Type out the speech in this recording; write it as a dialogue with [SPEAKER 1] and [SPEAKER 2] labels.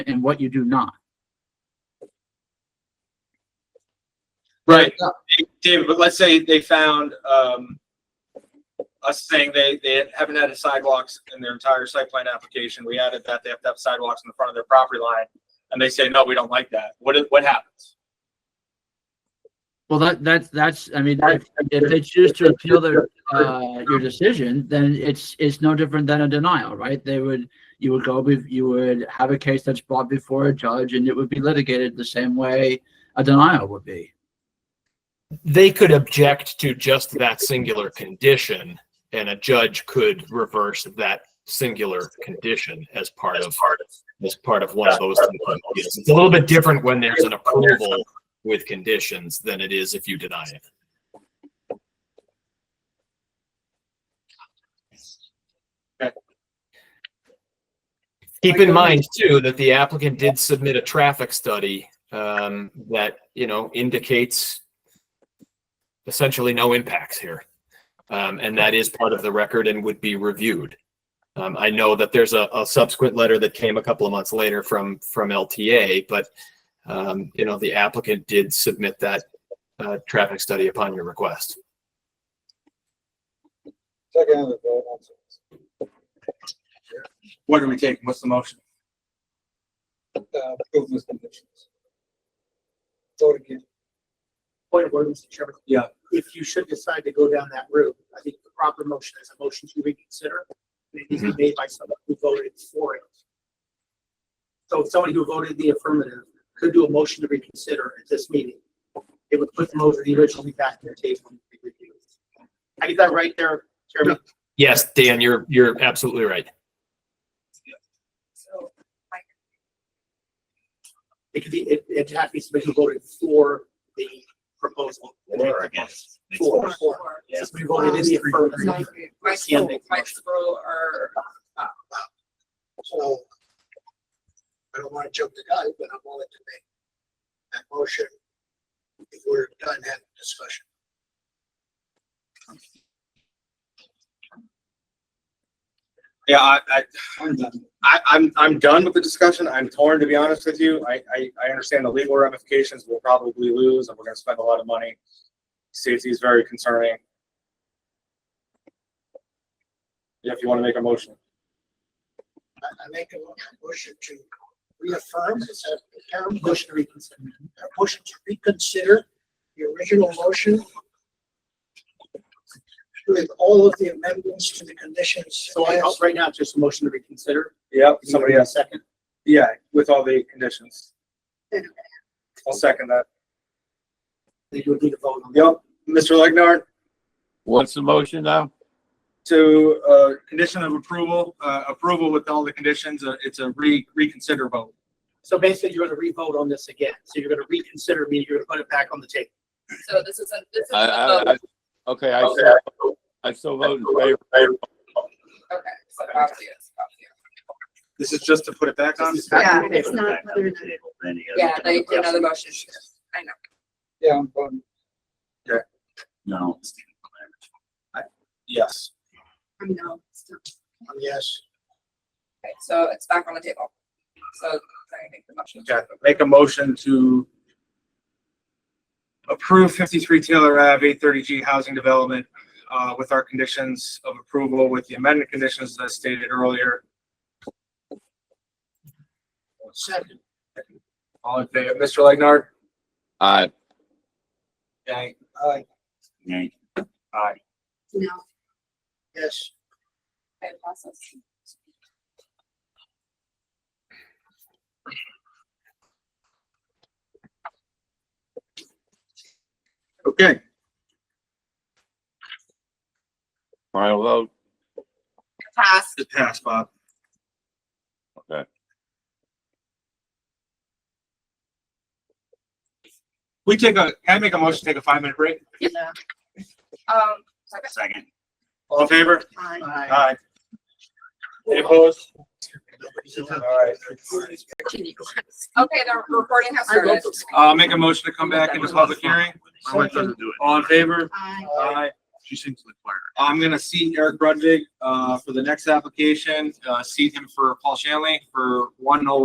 [SPEAKER 1] and what you do not.
[SPEAKER 2] Right. uh, David, but let's say they found, um, us saying they, they haven't added sidewalks in their entire site plan application. We added that they have to have sidewalks in the front of their property line. And they say, no, we don't like that. What, is- what happens?
[SPEAKER 1] Well, that, that's, that's, I mean, if, if they choose to appeal their, uh, your decision, then it's, it's no different than a denial, right? They would, you would go, be- you would have a case that's brought before a judge and it would be litigated the same way a denial would be.
[SPEAKER 3] they could object to just that singular condition and a judge could reverse that singular condition as part of as part of one of those appeals. It's a little bit different when there's an approval with conditions than it is if you deny it. Keep in mind too, that the applicant did submit a traffic study, um, that, you know, indicates essentially no impacts here. Um, and that is part of the record and would be reviewed. Um, I know that there's a, a subsequent letter that came a couple of months later from, from LTA, but, um, you know, the applicant did submit that, uh, traffic study upon your request.
[SPEAKER 2] What do we take? What's the motion?
[SPEAKER 4] Point of order, Mr. Chairman.
[SPEAKER 2] Yeah.
[SPEAKER 4] If you should decide to go down that route, I think the proper motion is a motion to reconsider. and It needs to be made by someone who voted for it. So if somebody who voted the affirmative could do a motion to reconsider at this meeting, it would put them over the originally back in their table and be reviewed. I get that right there, Chairman?
[SPEAKER 3] Yes, Dan, you're, you're absolutely right.
[SPEAKER 4] So, I- It could be, it, it'd have to be somebody who voted for the proposal.
[SPEAKER 2] Or against.
[SPEAKER 4] For, for.
[SPEAKER 2] Yeah.
[SPEAKER 4] Somebody voted in the affirmative.
[SPEAKER 5] Rexbro, Rexbro or,
[SPEAKER 4] So I don't want to jump the gun, but I'm willing to make that motion if we're done having discussion.
[SPEAKER 2] Yeah, I, I, I, I'm, I'm done with the discussion. I'm torn, to be honest with you. I, I, I understand the legal ramifications. We'll probably lose and we're gonna spend a lot of money. Safety is very concerning. Yeah, If you wanna make a motion.
[SPEAKER 4] I, I make a mo- motion to reaffirm, is that the term? Motion to reconsider. A motion to reconsider the original motion with all of the amendments to the conditions. So I, right now, just a motion to reconsider.
[SPEAKER 2] Yep, somebody else.
[SPEAKER 4] Second.
[SPEAKER 2] Yeah, with all the conditions. I'll second that.
[SPEAKER 4] They do need a vote on that.
[SPEAKER 2] Yep, Mr. Legnard,
[SPEAKER 6] What's the motion now?
[SPEAKER 2] to, uh, condition of approval, uh, approval with all the conditions, uh, it's a re, reconsider vote.
[SPEAKER 4] So basically, you're gonna re-vote on this again. So you're gonna reconsider, meaning you're gonna put it back on the table.
[SPEAKER 5] so this isn't, this isn't
[SPEAKER 6] I,
[SPEAKER 5] a
[SPEAKER 6] I,
[SPEAKER 5] vote.
[SPEAKER 6] I, okay, I still, I still vote in favor.
[SPEAKER 5] Okay, so Bob's yes, Bob's yes.
[SPEAKER 2] This is just to put it back on?
[SPEAKER 5] Yeah,
[SPEAKER 4] it's not.
[SPEAKER 5] Yeah, they did another motion. I know.
[SPEAKER 6] No.
[SPEAKER 2] Yes.
[SPEAKER 5] I know.
[SPEAKER 4] Yes.
[SPEAKER 5] Okay, so it's back on the table. So I make the motion.
[SPEAKER 2] Okay, make a motion to approve fifty-three Taylor Ave, eight thirty G housing development, uh, with our conditions of approval, with the amended conditions that I stated earlier.
[SPEAKER 4] Second.
[SPEAKER 2] All in favor, Mr. Legnard?
[SPEAKER 6] I,
[SPEAKER 2] Aye.
[SPEAKER 4] Aye.
[SPEAKER 2] Aye.
[SPEAKER 5] No.
[SPEAKER 4] Yes.
[SPEAKER 5] Okay, process.
[SPEAKER 2] Okay,
[SPEAKER 6] final vote.
[SPEAKER 5] Pass.
[SPEAKER 2] it passed, Bob.
[SPEAKER 6] Okay.
[SPEAKER 2] We take a, can I make a motion, to take a five-minute break?
[SPEAKER 5] Um,
[SPEAKER 2] Second. All in favor?
[SPEAKER 4] Aye.
[SPEAKER 2] Aye. Any opposed? All right.
[SPEAKER 5] okay, the recording has started.
[SPEAKER 2] Uh, make a motion to come back into public hearing.
[SPEAKER 7] My wife doesn't do it.
[SPEAKER 2] All in favor?
[SPEAKER 4] Aye.
[SPEAKER 2] Aye.
[SPEAKER 7] She sings in the choir.
[SPEAKER 2] I'm gonna seat Eric Brudvig, uh, for the next application, uh, seat him for Paul Shanley for one oh